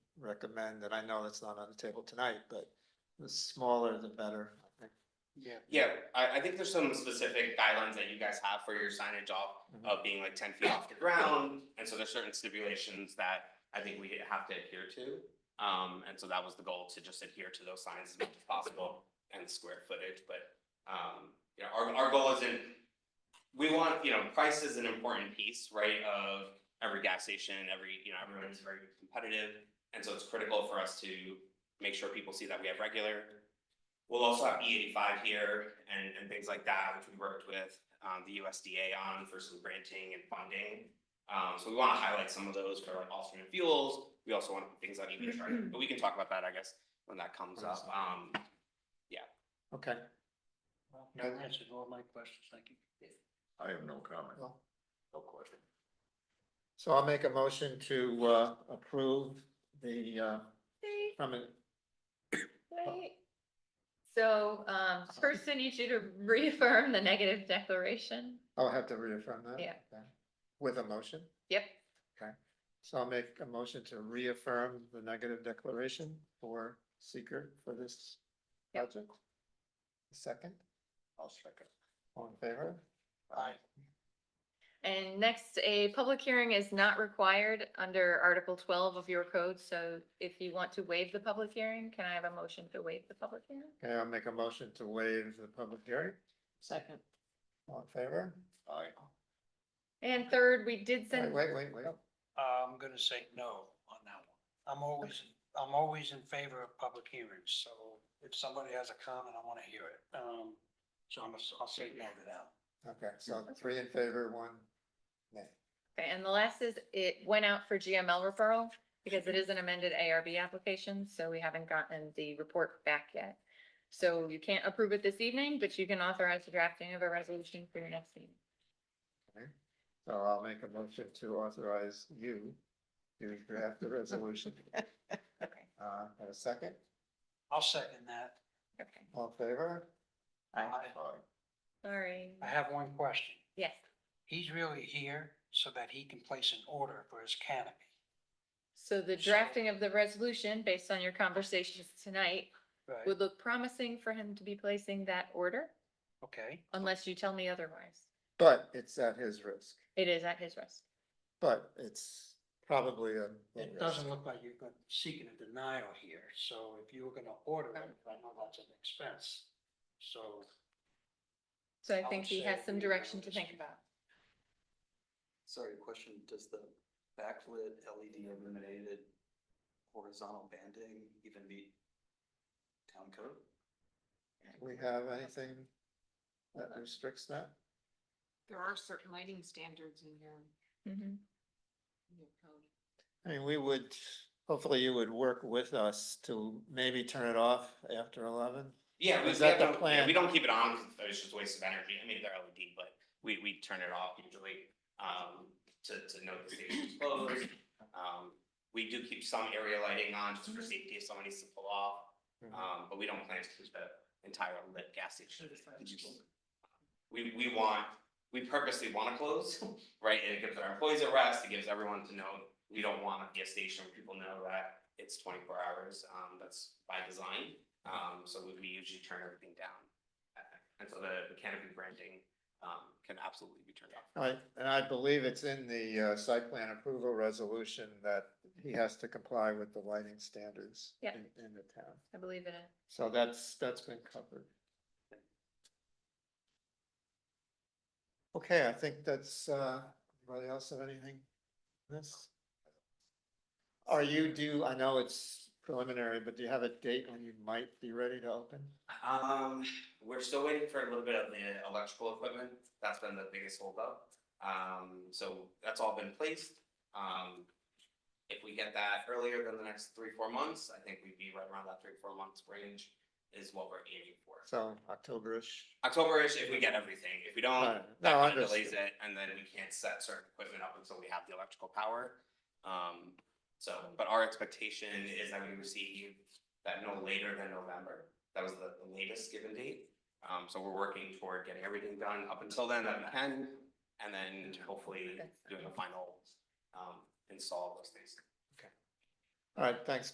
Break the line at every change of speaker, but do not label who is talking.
recommend, and I know that's not on the table tonight, but the smaller the better. I think.
Yeah.
Yeah, I, I think there's some specific guidelines that you guys have for your signage off
Mhm.
of being like ten feet off the ground. And so there's certain stipulations that I think we have to adhere to. Um, and so that was the goal, to just adhere to those signs as much as possible and square footage, but, um, you know, our, our goal isn't, we want, you know, price is an important piece, right, of every gas station, every, you know, everyone's very competitive. And so it's critical for us to make sure people see that we have regular, We'll also have E eighty-five here and, and things like that, which we worked with, um, the USDA on for some granting and funding. Um, so we wanna highlight some of those for like alternate fuels. We also want things on E EV charging, but we can talk about that, I guess, when that comes up. Um,
Okay,
Well, you answered all my questions, thank you.
I have no comment, no question.
so I'll make a motion to, uh, approve the, uh,
Wait,
from, it- Oh.
wait. So, um, first I need you to reaffirm the negative declaration.
I'll have to reaffirm that.
Yeah.
Okay. With a motion,
Yep,
so I'll make a motion to reaffirm the negative declaration for seeker for this
Yep.
project. Second,
I'll second.
all in favor?
Aye.
and next, a public hearing is not required under Article twelve of your code, so if you want to waive the public hearing, can I have a motion to waive the public hearing?
Okay, I'll make a motion to waive the public hearing,
Second.
all in favor?
Aye.
And third, we did
Wait,
send,
wait, wait, wait.
I'm gonna say no on that one. I'm always, I'm always in favor of public hearings, so if somebody has a comment, I wanna hear it. Um, so I'm, I'll say no to that.
Okay, so three in favor, one nay.
okay, and the last is, it went out for GML referral because it is an amended ARB application, so we haven't gotten the report back yet. So you can't approve it this evening, but you can authorize the drafting of a resolution for your next meeting.
So I'll make a motion to authorize you to draft the resolution.
Okay,
Uh, have a second,
I'll second that.
okay,
all in favor?
I-
sorry.
I have one question.
Yes,
He's really here so that he can place an order for his canopy.
so the drafting of the resolution, based on your conversations tonight,
Right.
would look promising for him to be placing that order,
Okay,
unless you tell me otherwise.
But it's at his risk,
It is at his risk.
but it's probably a. low
it
risk.
doesn't look like you're gonna- seeking a denial here, so if you were gonna order it, I know that's an expense. So
So I
I
think
would
he has
say
some
we
direction
would
to think
just-
about.
Sorry, question, does the backlit LED illuminated horizontal banding even meet town code?
We have anything that restricts that?
There are certain lighting standards in your,
Mhm.
in your code.
I mean, we would, hopefully you would work with us to maybe turn it off after eleven.
yeah, we, we
Is that the
don't, yeah,
plan?
we don't keep it on, because it's just a waste of energy. I mean, they're LED, but we, we turn it off usually, um, to, to know the station's closed. Um, we do keep some area lighting on just for safety if someone needs to pull off,
Mm-hmm.
Uh.
um, but we don't plan to keep the entire lit gas station. we, we want, we purposely wanna close, right? And it gives our employees a rest, it gives everyone to know, we don't want a gas station where people know that it's twenty-four hours, um, that's by design. Um, so we, we usually turn everything down. at night. And so the the canopy branding, um, can absolutely be turned off.
Right, and I believe it's in the uh, site plan approval resolution that he has to comply with the lighting standards
Yeah.
in, in the town.
I believe it is.
So that's, that's been covered. Okay, I think that's, uh, anybody else have anything? on This? Are you due, I know it's preliminary, but do you have a date when you might be ready to open?
Um, we're still waiting for a little bit of the electrical equipment. That's been the biggest holdup. Um, so that's all been placed. Um, if we get that earlier than the next three, four months, I think we'd be right around that three, four months range is what we're aiming for.
So October-ish?
October-ish if we get everything. If we don't,
Alright,
that
no,
kind of delays
understood.
it and then we can't set certain equipment up until we have the electrical power. Um, so, but our expectation is that we receive that no later than November. That was the the latest given date. Um, so we're working toward getting everything done up until then that we can. And then hopefully doing the final, um, install of those things.
All right, thanks,